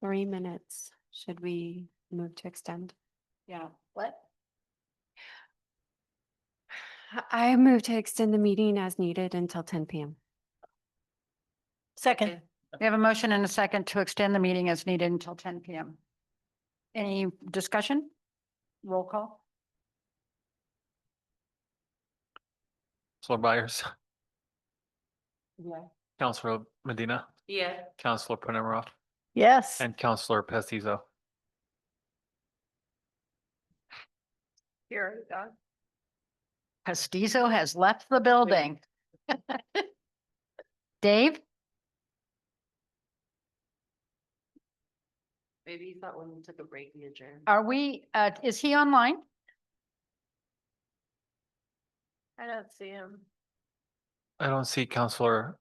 three minutes. Should we move to extend? Yeah, what? I move to extend the meeting as needed until ten PM. Second. We have a motion and a second to extend the meeting as needed until ten PM. Any discussion? Roll call? Counselor Byers, Yeah. Counselor Medina, Yeah. Counselor Penemroff, Yes. and Counselor Pestizo. Here, done. Pestizo has left the building. Dave? Maybe you thought when we took a break, we adjourned. Are we, uh, is he online? I don't see him. I don't see Counselor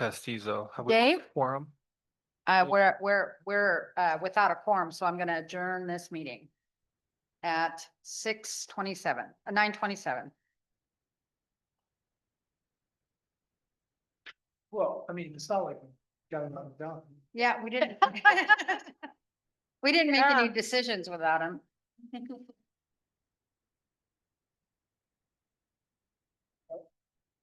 Pestizo. Have we Dave? Quorum. Uh, we're, we're, we're, uh, without a quorum, so I'm gonna adjourn this meeting at six twenty-seven, uh, nine twenty-seven. Well, I mean, it's not like we got it all done. Yeah, we didn't. We didn't make any Yeah. decisions without him.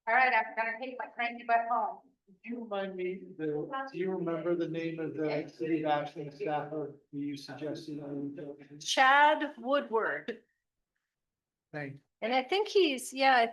All right, I'm gonna take my cranky butt home. Do you remind me, the, do you remember the name of the city of Ashland staffer you suggested? Chad Woodward, Thank and I think he's, yeah, I think